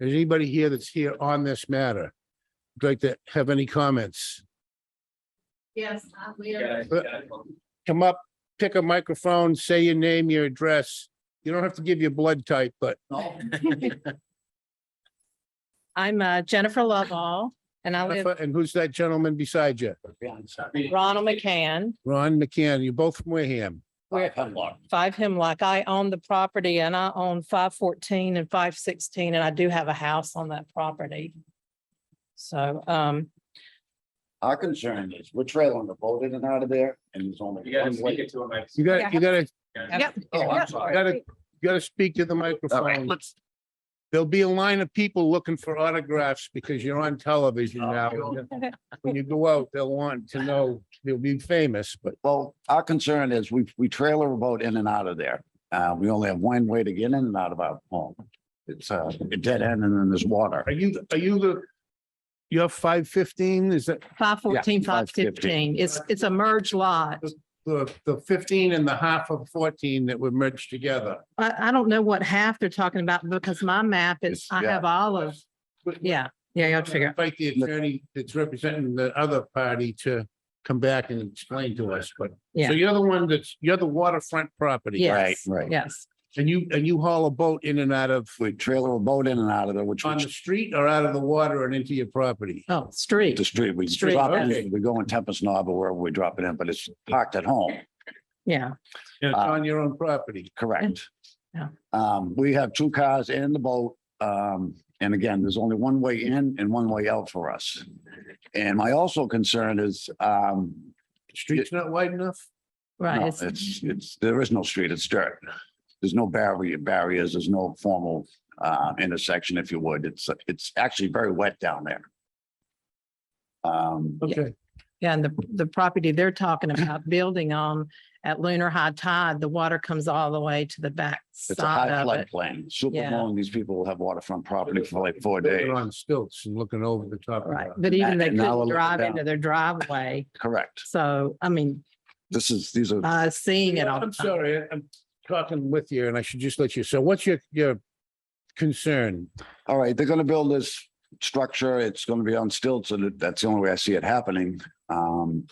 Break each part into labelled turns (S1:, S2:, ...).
S1: Is anybody here that's here on this matter? Would Like to have any comments?
S2: Yes, uh, we are.
S1: Come up, pick a microphone, say your name, your address. You don't have to give your blood type, but
S3: I'm uh, Jennifer Lovall and I live
S1: and who's that gentleman beside you?
S3: Ronald McCann,
S1: Ron McCann, you're both from Wareham.
S3: five Hemlock. I own the property and I own five fourteen and five sixteen, and I do have a house on that property. So um,
S4: Our concern is we're trailing the boat in and out of there and there's only.
S5: You gotta
S4: one
S5: speak
S4: way.
S5: it to him. I-
S1: You gotta, you gotta,
S3: Yep.
S4: Oh,
S3: Yeah.
S4: I'm sorry.
S1: gotta, you gotta speak to the microphone.
S4: let's-
S1: There'll be a line of people looking for autographs because you're on television now. When you go out, they'll want to know, they'll be famous, but
S4: Well, our concern is we, we trailer a boat in and out of there. Uh, we only have one way to get in and out of our home. It's uh, a dead end and then there's water.
S1: are you, are you the, you're five fifteen, is that
S3: five fourteen, five
S4: 515.
S3: fifteen, it's, it's a merged lot.
S1: the, the fifteen and the half of fourteen that were merged together?
S3: I, I don't know what half they're talking about because my map is,
S4: It's-
S3: I
S4: yeah.
S3: have all of, yeah, yeah, you have to figure.
S1: Fight the attorney that's representing the other party to come back and explain to us, but.
S3: Yeah.
S1: So you're the one that's, you're the waterfront property.
S3: Yes,
S4: right.
S3: yes.
S1: And you, and you haul a boat in and out of,
S4: We trailer a boat in and out of there, which
S1: on the
S4: is
S1: street or out of the water and into your property?
S3: Oh, street.
S4: the street. We
S3: Street,
S4: drop
S1: okay.
S4: it, we go in Tempest Knob or wherever we drop it in, but it's parked at home.
S3: Yeah,
S1: It's
S4: Uh,
S1: on your own property.
S4: Correct.
S3: Yeah.
S4: Um, we have two cars and the boat. Um, and again, there's only one way in and one way out for us. And my also concern is, um,
S1: Street's not wide enough?
S3: right.
S4: no,
S3: It's,
S4: it's, it's, there is no street, it's dirt. There's no barrier, barriers, there's no formal, uh, intersection, if you would. It's, it's actually very wet down there. Um,
S1: Okay,
S3: Yeah, and the, the property they're talking about building on at lunar high tide, the water comes all the way to the back
S4: it's a high
S3: side of it.
S4: floodplain. Super
S3: Yeah.
S4: long, these people will have waterfront property for like four
S1: They're
S4: days.
S1: on stilts and looking over the top. of
S3: Right,
S1: that.
S3: but even they
S4: And now we're
S3: couldn't
S4: looking
S3: drive
S4: down.
S3: into their driveway.
S4: Correct.
S3: So, I mean,
S4: This is, these are
S3: uh, seeing it all the
S1: I'm
S3: time.
S1: sorry, I'm talking with you and I should just let you, so what's your, your concern?
S4: All right, they're gonna build this structure. It's gonna be on stilts, and that's the only way I see it happening. Um.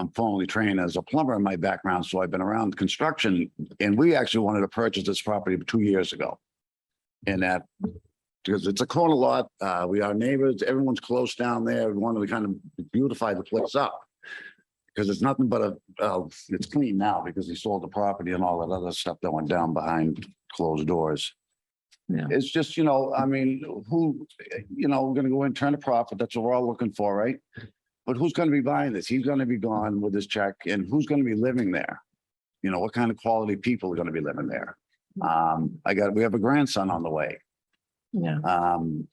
S4: I'm formally trained as a plumber in my background, so I've been around construction, and we actually wanted to purchase this property two years ago. And that, because it's a corner lot, uh, we are neighbors, everyone's close down there. We wanted to kind of beautify the place up. Because it's nothing but a, uh, it's clean now because he sold the property and all that other stuff that went down behind closed doors. It's just, you know, I mean, who, you know, we're gonna go in, turn a profit, that's what we're all looking for, right? But who's gonna be buying this? He's gonna be gone with his check and who's gonna be living there? You know, what kind of quality people are gonna be living there? Um, I got, we have a grandson on the way.
S3: Yeah,
S4: Um,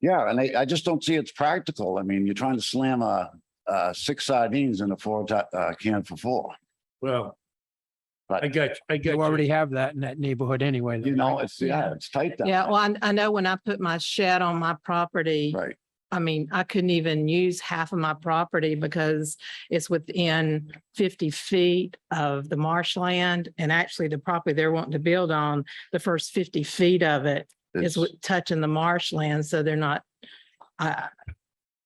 S4: yeah, and I, I just don't see it's practical. I mean, you're trying to slam a, uh, six sardines in a four, ti- uh, can for four.
S1: Well,
S4: But-
S1: I got, you, I got.
S6: You
S1: you.
S6: already have that in that neighborhood anyway. though,
S4: You know,
S6: right?
S4: it's, yeah, it's tight down.
S3: yeah.
S4: there.
S3: Well, I, I know when I put my shed on my property,
S4: Right,
S3: I mean, I couldn't even use half of my property because it's within fifty feet of the marshland. And actually, the property they're wanting to build on, the first fifty feet of it is
S4: it's,
S3: with touching the marshland, so they're not, I,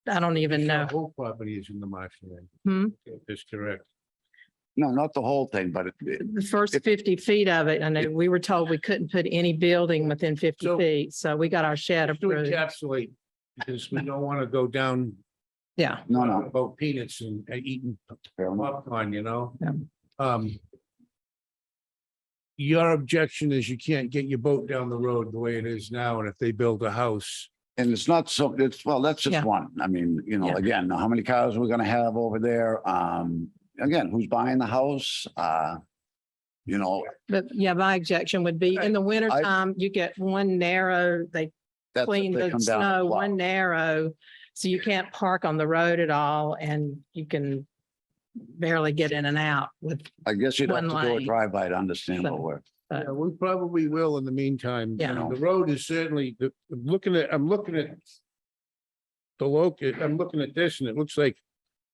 S3: I don't even
S1: Your
S3: know.
S1: Whole property is in the marshland.
S3: Hmm?
S1: That's correct.
S4: no, not the whole thing, but it- it,
S3: The first
S4: If-
S3: fifty feet of it, I know, we were told we couldn't put any building within fifty
S1: So-
S3: feet, so we got our shed
S1: Just to
S3: approved.
S1: encapsulate, because we don't want to go down
S3: Yeah,
S4: no, no.
S1: about peanuts and uh, eating
S4: fair enough.
S1: popcorn, you know?
S3: Yeah.
S1: Um. Your objection is you can't get your boat down the road the way it is now, and if they build a house.
S4: And it's not so, it's, well, that's
S3: Yeah.
S4: just one. I mean, you know,
S3: Yeah.
S4: again, how many cars we're gonna have over there? Um, again, who's buying the house? Uh, you know,
S3: but yeah, my objection would be in the winter
S4: I-
S3: time, you get one narrow, they
S4: that's. if
S3: clean
S4: they
S3: the
S4: come down and
S3: snow,
S4: plow.
S3: one narrow. So you can't park on the road at all and you can barely get in and out with,
S4: I guess you'd have to
S3: one
S4: do a
S3: lane.
S4: drive by to understand
S3: So-
S4: what we're,
S3: Uh,
S1: Yeah, we probably will in the meantime.
S3: Yeah.
S1: The road is certainly, the, I'm looking at, I'm looking at. The local, I'm looking at this and it looks like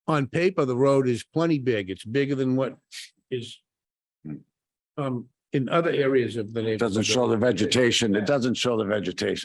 S1: on paper, the road is plenty big. It's bigger than what is. Um, in other areas of the neighborhood.
S4: Doesn't show the vegetation. It doesn't show the vegetation.